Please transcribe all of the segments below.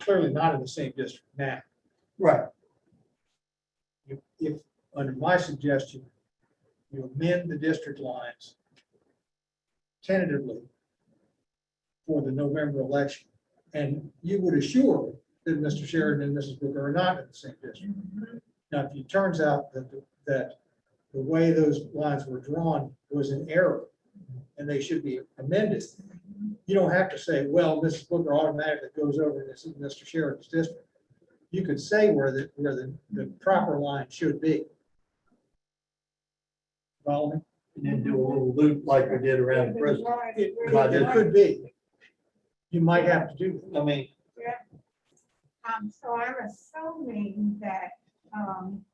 clearly not in the same district now. Right, If, if, under my suggestion, you amend the district lines tentatively for the November election, and you would assure that Mr. Sheridan and Mrs. Booker are not in the same district. Now, if it turns out that, that the way those lines were drawn was an error, and they should be amended, you don't have to say, well, Mrs. Booker automatically goes over to Mr. Sheridan's district you could say where the, where the, the proper line should be. Follow me? and then do a little loop like we did around the prison. It I could- just- it could be. You might have to do, that. I mean, Um, so I'm assuming that, um,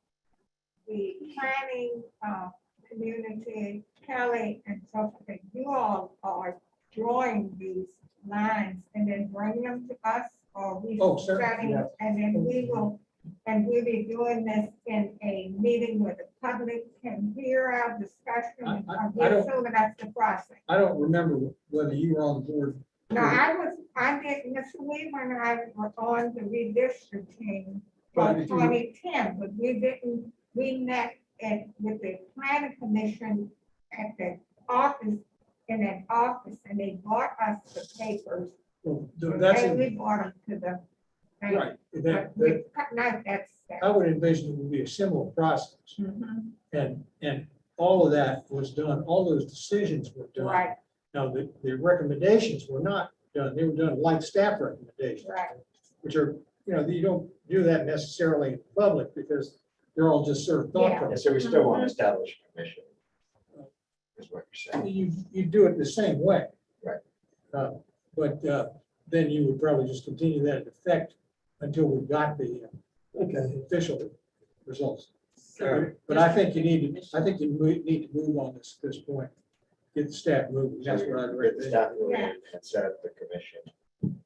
the planning, uh, community, Kelly and so forth, you all are drawing these lines and then bring them to us or we. Oh, sure, study, yeah. And then we will, and we'll be doing this in a meeting where the public can hear our discussion. I- I- I'm I don't- assuming that's the process. I don't remember whether you were on the board. No, Hmm. I was, I did, Mr. Weaver and I were on the redistricting But I for mean, you- twenty ten, but we didn't, we met at, with the planning commission at the office, in an office, and they brought us the papers. Well, That's, And we brought them to the. right, that, But that, we cut not that step. I would envision it would be a similar process. Mhm, And, and all of that was done, all those decisions were done. Right, Now, the, the recommendations were not done, they were done like staff recommendations. right, which are, you know, you don't do that necessarily in public because they're all just sort of thought. Yeah. And process. so we still want to establish a commission. Is what you're saying. You, you do it the same way. Right. Uh, But uh, then you would probably just continue that effect until we got the okay, uh, official results. So- But I think you need to, I think you mo- need to move on this, this point, get the staff moving, that's what I'd Get the recommend. staff moving Yeah. and set up the commission.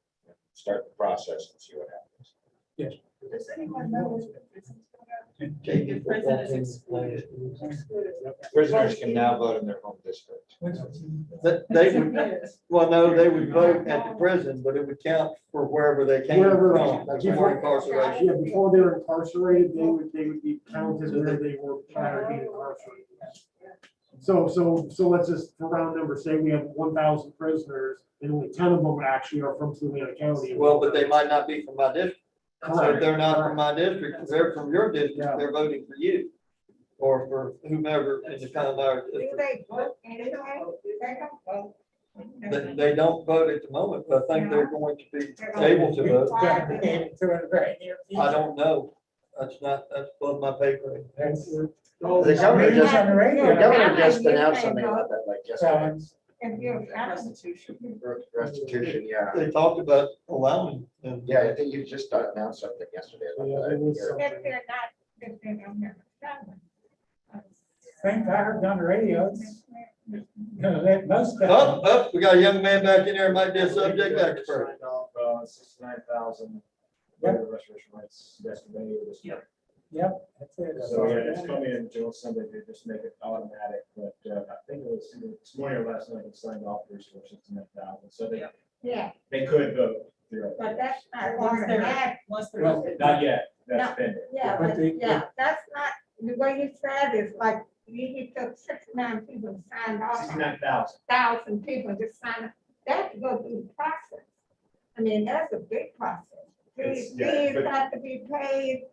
Start the process and see what happens. Does anyone know if the prison's gonna- If prison is excluded. excluded. Prisoners can now vote in their home district. that they would, well, no, they would vote at the prison, but it would count for wherever they came Wherever from. they- Before incarceration. Yeah, before they were incarcerated, they would, they would be counted where they were prior to being incarcerated. So, so, so let's just, for round number, say we have one thousand prisoners, and only ten of them actually are from Fluent County. Well, but they might not be from my district. So if Correct. they're not from my district, if they're from your district, they're voting for you. Or for whomever in the town of our do district. they vote anyway? They don't vote. They, they don't vote at the moment, but I think they're going to be They're not able to vote. required to vote. I don't know. That's not, that's above my pay grade. The governor just, on the radio. the governor just announced something about that, like yesterday. If you're. Restitution. Restitution, yeah. They talked about allowing them. Yeah, I think you just announced something yesterday. about Yeah, there was that. some- If they're not, if they don't have a seven. Things I heard on the radio, it's, you know, that most of Up, them, up, Oh, we got a young man back in there, might be a subject expert. Sixty-nine thousand, the restoration rights yesterday. it was- Yep. yep, that's it. So, yeah, it's coming in June Sunday, they just make it automatic, but uh, I think it was either this morning or last night, it signed off for sixty-nine thousand, so they, Yep. Yeah, they could vote. theoretically. but that's not Once automatic. they're, once they're. Well, Not yet, that's pending. Yeah, But but- they- yeah, that's not, the way you said is like, you you took six, nine people and signed off, on it, Sixty-nine thousand, thousand people just signed, up. that go through the process. I mean, that's a big process. Fees It's- yeah, fees but- have to be paid,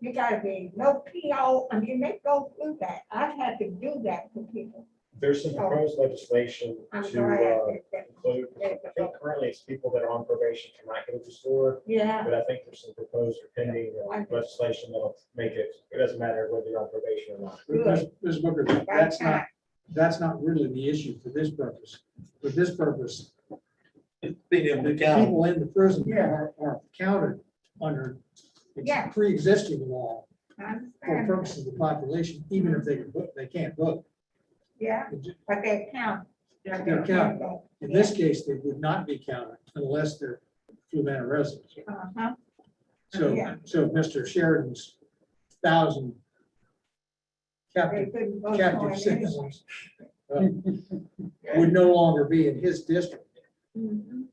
you gotta be, no PO, I mean, they go through that, I've had to do that for people. there's some proposed legislation I'm to sorry. I uh, did that. include, I think currently it's people that are on probation cannot go to the store, Yeah. but I think there's some proposed or pending uh, I- legislation that'll make it, it doesn't matter whether you're on probation or not. Ms. Ms. Booker, that's not, that's not really the issue for this purpose. For this purpose, Being able The to count. people in the prison are, are counted under ex- Yeah. pre-existing law I for understand, that. purposes of the population, even if they can vote, they can't vote. yeah, but they count. They're counted. In this case, they would not be counted unless they're Fluvanna residents. Uh-huh, So, Yeah. so Mr. Sheridan's thousand they captive, couldn't vote for captive it anyway. citizens uh, would no longer be in his district. Mhm.